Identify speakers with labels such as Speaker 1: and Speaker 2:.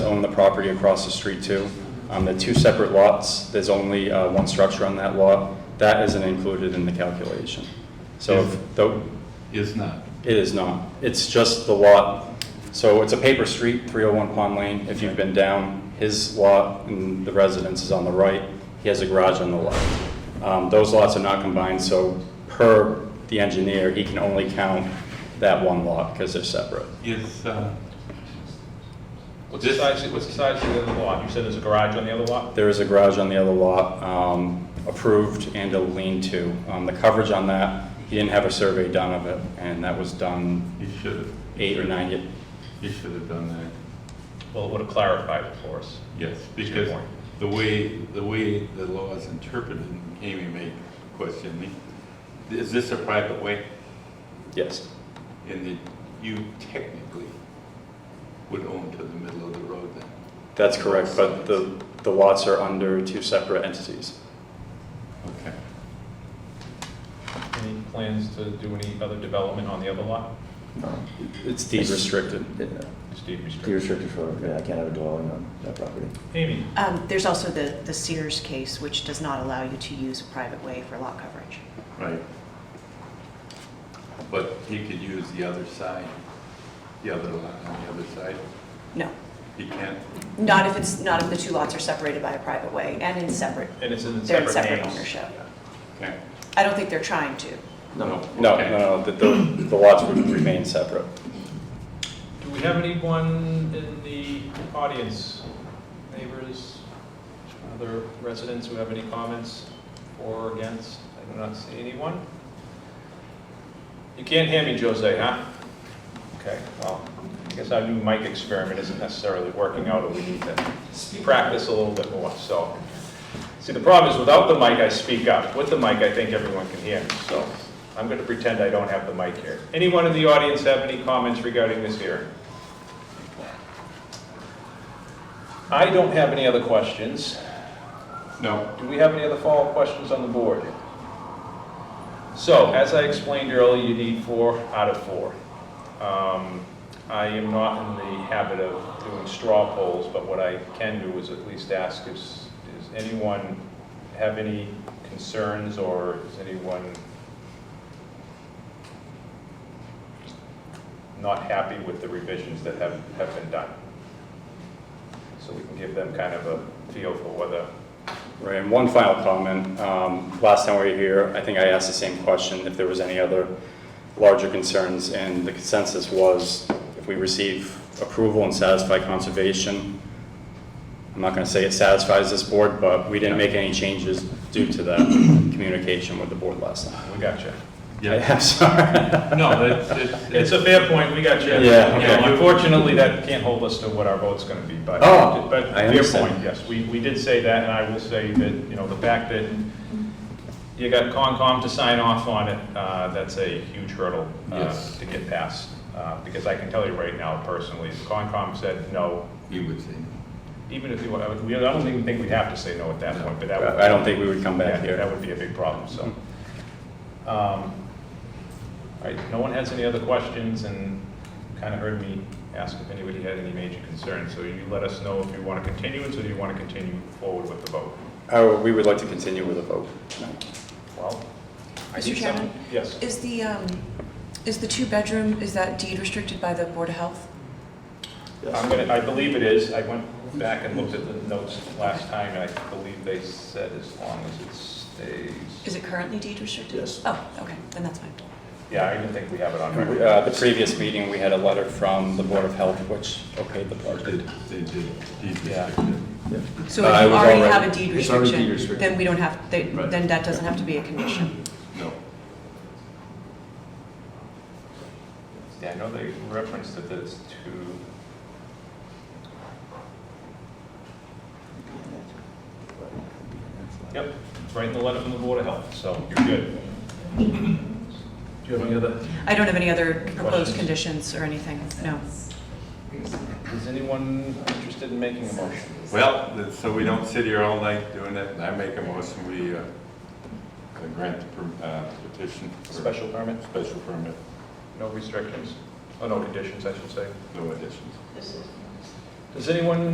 Speaker 1: on the property across the street too. Um, The two separate lots, there's only uh, one structure on that lot. That isn't included in the calculation. So if the-
Speaker 2: It's not.
Speaker 1: it is not. It's just the lot. So it's a paper street, 301 Pond Lane. If you've been down, his lot and the residence is on the right. He has a garage on the left. Um, Those lots are not combined, so per the engineer, he can only count that one lot because they're separate.
Speaker 2: Is, uh,
Speaker 3: What's the size, what's the size of the other lot? You said there's a garage on the other lot?
Speaker 1: There is a garage on the other lot, um, approved and a lean-to. Um, The coverage on that, he didn't have a survey done of it, and that was done
Speaker 2: you should have.
Speaker 1: eight or nine years.
Speaker 2: You should have done that,
Speaker 3: Well, it would have clarified it for us.
Speaker 2: yes,
Speaker 3: That's a good
Speaker 2: because
Speaker 3: point.
Speaker 2: the way, the way the law is interpreted, and Amy may question me, is this a private way?
Speaker 1: Yes,
Speaker 2: And that you technically would own to the middle of the road then?
Speaker 1: that's correct, but the, the lots are under two separate entities.
Speaker 2: Okay.
Speaker 3: Any plans to do any other development on the other lot?
Speaker 1: It's deed restricted.
Speaker 3: Steve
Speaker 4: Be
Speaker 3: restricted.
Speaker 4: restricted for, yeah, I can't have a dwelling on that property.
Speaker 3: Amy?
Speaker 5: Um, There's also the the Sears case, which does not allow you to use a private way for lot coverage.
Speaker 2: Right. But he could use the other side, the other lot on the other side,
Speaker 5: No,
Speaker 2: he can't?
Speaker 5: not if it's, not if the two lots are separated by a private way and in separate,
Speaker 3: And it's in
Speaker 5: they're in
Speaker 3: separate names?
Speaker 5: separate ownership.
Speaker 2: Okay.
Speaker 5: I don't think they're trying to.
Speaker 1: No,
Speaker 2: okay.
Speaker 1: no, no, the, the the lots would remain separate.
Speaker 3: Do we have anyone in the audience, neighbors, other residents who have any comments for or against? I do not see anyone. You can't hear me, Jose, huh? Okay, well, I guess our new mic experiment isn't necessarily working out, or we need to practice a little bit more, so. See, the problem is without the mic, I speak up. With the mic, I think everyone can hear me, so I'm going to pretend I don't have the mic here. Anyone in the audience have any comments regarding this hearing? I don't have any other questions.
Speaker 2: No,
Speaker 3: Do we have any other follow-up questions on the board? So, as I explained earlier, you need four out of four. Um, I am not in the habit of doing straw polls, but what I can do is at least ask if, does anyone have any concerns, or is anyone not happy with the revisions that have, have been done? So we can give them kind of a feel for whether
Speaker 1: Right, and one final comment. Um, Last time we were here, I think I asked the same question, if there was any other larger concerns, and the consensus was, if we receive approval and satisfy conservation, I'm not going to say it satisfies this board, but we didn't make any changes due to that communication with the board last time.
Speaker 3: We got you.
Speaker 2: Yeah,
Speaker 1: I'm sorry.
Speaker 2: no, it's, it's.
Speaker 3: It's a fair point, we got you.
Speaker 1: Yeah,
Speaker 2: okay.
Speaker 3: Unfortunately, that can't hold us to what our vote's gonna be, but.
Speaker 1: Oh,
Speaker 3: but
Speaker 1: I
Speaker 3: fair
Speaker 1: understand.
Speaker 3: point. Yes, we, we did say that, and I will say that, you know, the fact that you got Concom to sign off on it, uh, that's a huge hurdle uh,
Speaker 2: Yes.
Speaker 3: to get past. Uh, Because I can tell you right now personally, if Concom said no,
Speaker 2: You would say,
Speaker 3: even if you, I would- we- I don't even think we'd have to say no at that point, but that would.
Speaker 1: I don't think we would come
Speaker 3: Yeah,
Speaker 1: back here. Hmm.
Speaker 3: that would be a big problem, so. Um, All right, no one has any other questions, and kind of heard me ask if anybody had any major concerns, so you let us know if you want to continue, or do you want to continue forward with the vote?
Speaker 1: Oh, We would like to continue with a vote.
Speaker 3: Well, I think
Speaker 5: Mr.
Speaker 3: some-
Speaker 5: Chairman?
Speaker 3: Yes,
Speaker 5: Is the, um, is the two-bedroom, is that deed restricted by the Board of Health?
Speaker 3: I'm gonna, I believe it is, I went back and looked at the notes last time, and I believe they said as long as it stays.
Speaker 5: Is it currently deed restricted?
Speaker 4: Yes.
Speaker 5: Oh, okay, then that's fine.
Speaker 3: Yeah, I even think we have it on. record.
Speaker 1: Uh, The previous meeting, we had a letter from the Board of Health, which okayed the
Speaker 2: they,
Speaker 1: project.
Speaker 2: they did, he
Speaker 3: Yeah.
Speaker 2: restricted.
Speaker 5: So
Speaker 1: Uh, it was
Speaker 5: if you already
Speaker 1: already-
Speaker 5: have a deed
Speaker 4: it's already deed
Speaker 5: restriction,
Speaker 4: restricted.
Speaker 5: then we don't have, they-
Speaker 2: Right.
Speaker 5: then that doesn't have to be a condition.
Speaker 2: No,
Speaker 3: Yeah, I know they referenced that there's two. Yep, it's right in the letter from the Board of Health, so you're good. Do you have any other?
Speaker 5: I don't have any other
Speaker 3: Questions?
Speaker 5: proposed conditions or anything, no.
Speaker 3: Is anyone interested in making a motion?
Speaker 2: well, th- so we don't sit here all night doing it, I make a motion, we, uh, uh, grant the per- uh, petition. for-
Speaker 3: Special permit,
Speaker 2: Special permit,
Speaker 3: no restrictions, oh, no conditions, I should say.
Speaker 2: no additions.
Speaker 3: Does anyone